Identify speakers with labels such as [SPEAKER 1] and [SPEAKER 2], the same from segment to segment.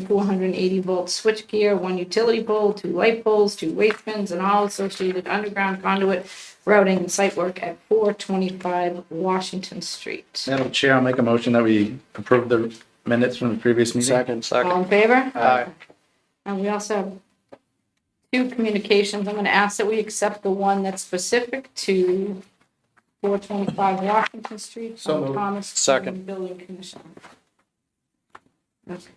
[SPEAKER 1] four hundred and eighty volt switchgear, one utility pole, two light poles, two weight pins, and all associated underground conduit routing and site work at four twenty-five Washington Street.
[SPEAKER 2] Madam Chair, I'll make a motion that we approve the minutes from the previous meeting.
[SPEAKER 3] Second, second.
[SPEAKER 1] All in favor?
[SPEAKER 2] Aye.
[SPEAKER 3] uh,
[SPEAKER 1] And we also have two communications. I'm going to ask that we accept the one that's specific to 425 Washington Street
[SPEAKER 2] So
[SPEAKER 1] from
[SPEAKER 2] moved.
[SPEAKER 1] Thomas.
[SPEAKER 3] Second.
[SPEAKER 1] Building Commission. Okay.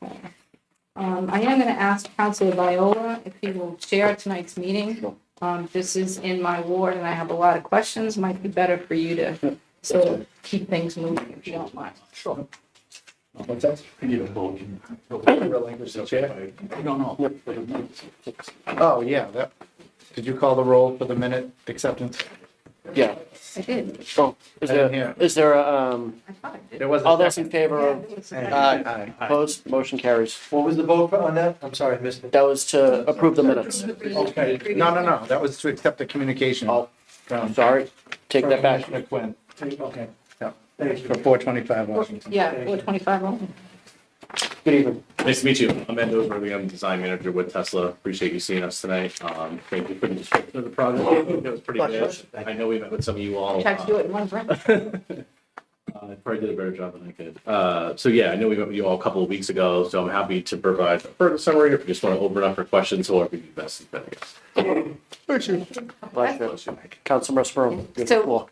[SPEAKER 1] Um, I am going to ask Counselor Viola if he will chair tonight's meeting. Um, This is in my ward and I have a lot of questions. Might be better for you to sort of keep things moving if you don't mind.
[SPEAKER 2] Sure. What's that?
[SPEAKER 4] Need a motion.
[SPEAKER 2] Relinquish the chair.
[SPEAKER 4] No, no.
[SPEAKER 2] Oh, yeah, that, did you call the roll for the minute acceptance?
[SPEAKER 3] Yeah.
[SPEAKER 1] I did.
[SPEAKER 3] Oh, is
[SPEAKER 2] I didn't hear.
[SPEAKER 3] there, is there, a, um,
[SPEAKER 1] I thought I did.
[SPEAKER 2] There was
[SPEAKER 3] all
[SPEAKER 2] a
[SPEAKER 3] those in
[SPEAKER 2] second.
[SPEAKER 3] favor of Aye.
[SPEAKER 2] Aye.
[SPEAKER 3] opposed, motion carries.
[SPEAKER 5] What was the vote on that? I'm sorry, I missed it.
[SPEAKER 3] That was to approve the minutes.
[SPEAKER 2] Okay, no, no, no, that was to accept the communication.
[SPEAKER 3] Oh.
[SPEAKER 2] from-
[SPEAKER 3] Sorry, take that back.
[SPEAKER 2] Commissioner Quinn,
[SPEAKER 5] Okay.
[SPEAKER 2] Yeah.
[SPEAKER 5] Thank you.
[SPEAKER 2] for four twenty-five Washington.
[SPEAKER 1] Yeah, 425 only.
[SPEAKER 3] Good evening.
[SPEAKER 6] Nice to meet you. I'm Ed Overby. I'm design manager with Tesla. Appreciate you seeing us tonight. Um, thank you for the description of the project. I think It was pretty good. I know we met with some of you all.
[SPEAKER 1] Tried to
[SPEAKER 6] uh,
[SPEAKER 1] do it in one breath.
[SPEAKER 6] I probably did a better job than I could. Uh, so yeah, I know we met with you all a couple of weeks ago, so I'm happy to provide a further summary if you just want to open it up for questions or if you best is better.
[SPEAKER 3] Pleasure. Councilmember Sprum, you have the
[SPEAKER 1] So-
[SPEAKER 3] floor.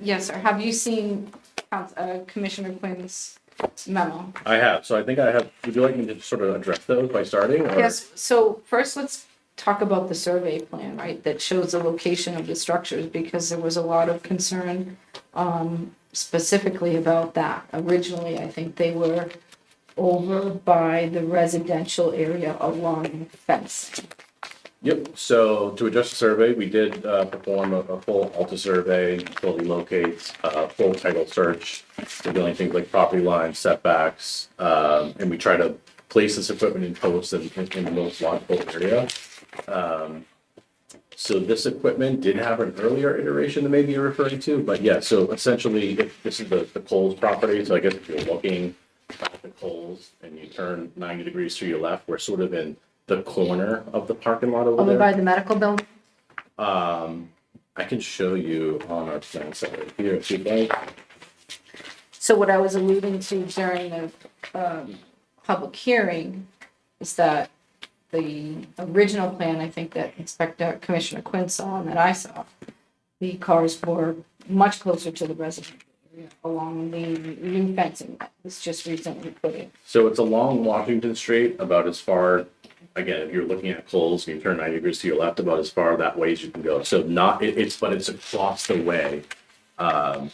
[SPEAKER 1] Yes, sir. Have you seen Couns- uh, Commissioner Quinn's memo?
[SPEAKER 6] I have. So I think I have, would you like me to sort of address those by starting? or-
[SPEAKER 1] Yes, so first let's talk about the survey plan, right, that shows the location of the structures, because there was a lot of concern um, specifically about that. Originally, I think they were over by the residential area along the fence.
[SPEAKER 6] Yep, so to address the survey, we did uh, perform a a full Alta survey, fully locates, uh, full title search, revealing things like property lines, setbacks, um, and we try to place this equipment in posts in in the most logical area. Um, So this equipment did have an earlier iteration that maybe you're referring to, but yeah, so essentially, if this is the the Coles property, so I guess if you're looking at the Coles and you turn 90 degrees to your left, we're sort of in the corner of the parking lot over
[SPEAKER 1] Over by
[SPEAKER 6] Oh, there.
[SPEAKER 1] the medical building?
[SPEAKER 6] Um, I can show you on our plan set right here if you'd like.
[SPEAKER 1] So what I was alluding to during the um, public hearing is that the original plan, I think that Inspector Commissioner Quinn saw and that I saw, the cars were much closer to the residential area along the new fencing that was just recently put in.
[SPEAKER 6] So it's along Washington Street, about as far, again, if you're looking at Coles, you turn ninety degrees to your left, about as far that way as you can go. So not, it, it's, but it's across the way, um,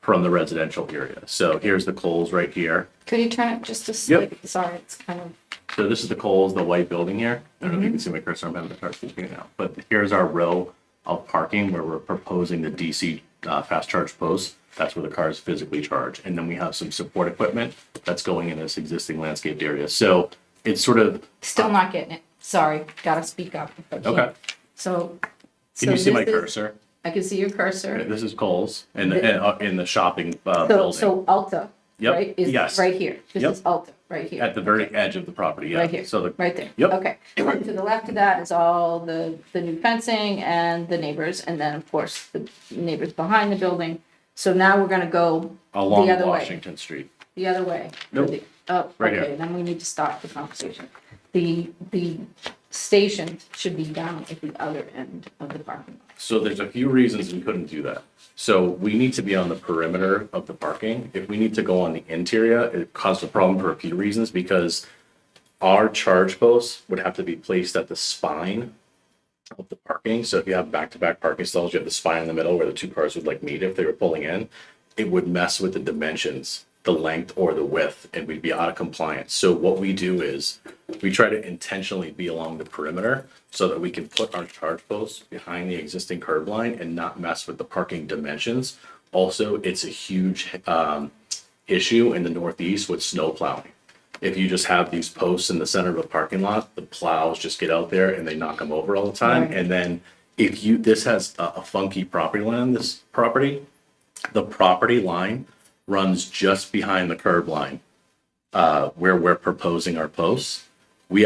[SPEAKER 6] from the residential area. So here's the Coles right here.
[SPEAKER 1] Could you turn it just a slight?
[SPEAKER 6] Yep.
[SPEAKER 1] Sorry, it's kind of,
[SPEAKER 6] So this is the Coles, the white building here. I don't know if you
[SPEAKER 1] Mm-hmm.
[SPEAKER 6] can see my cursor, I'm having to start speaking now. But here's our row of parking where we're proposing the DC uh, fast charge post. That's where the cars physically charge. And then we have some support equipment that's going in this existing landscaped area. So it's sort of,
[SPEAKER 1] still not getting it. Sorry, gotta speak up. if I can.
[SPEAKER 6] Okay.
[SPEAKER 1] So.
[SPEAKER 6] can you
[SPEAKER 1] so
[SPEAKER 6] see my
[SPEAKER 1] this is-
[SPEAKER 6] cursor?
[SPEAKER 1] I can see your cursor.
[SPEAKER 6] This is Coles and the- and, uh, in the shopping
[SPEAKER 1] So,
[SPEAKER 6] uh, building
[SPEAKER 1] so Alta,
[SPEAKER 6] Yep,
[SPEAKER 1] right,
[SPEAKER 6] yes.
[SPEAKER 1] is right here. This
[SPEAKER 6] Yep.
[SPEAKER 1] is Alta, right here.
[SPEAKER 6] at the very edge of the property.
[SPEAKER 1] Right here,
[SPEAKER 6] Yeah. So the,
[SPEAKER 1] right there.
[SPEAKER 6] Yep.
[SPEAKER 1] Okay. And To the left of that is all the, the new fencing and the neighbors, and then, of course, the neighbors behind the building. So now we're gonna go
[SPEAKER 6] along
[SPEAKER 1] The other way.
[SPEAKER 6] Washington Street.
[SPEAKER 1] the other way.
[SPEAKER 6] Nope.
[SPEAKER 1] The- Oh,
[SPEAKER 6] Right here.
[SPEAKER 1] okay, then we need to stop the conversation. The, the station should be down at the other end of the parking lot.
[SPEAKER 6] So there's a few reasons we couldn't do that. So we need to be on the perimeter of the parking. If we need to go on the interior, it caused a problem for a few reasons because our charge posts would have to be placed at the spine of the parking. So if you have back-to-back parking stalls, you have the spine in the middle where the two cars would like meet if they were pulling in. It would mess with the dimensions, the length or the width, and we'd be out of compliance. So what we do is we try to intentionally be along the perimeter so that we can put our charge posts behind the existing curb line and not mess with the parking dimensions. Also, it's a huge um, issue in the Northeast with snow plowing if you just have these posts in the center of a parking lot, the plows just get out there and they knock them over all the time.
[SPEAKER 1] Right.
[SPEAKER 6] And then if you, this has a a funky property line, this property, the property line runs just behind the curb line, uh, where we're proposing our posts.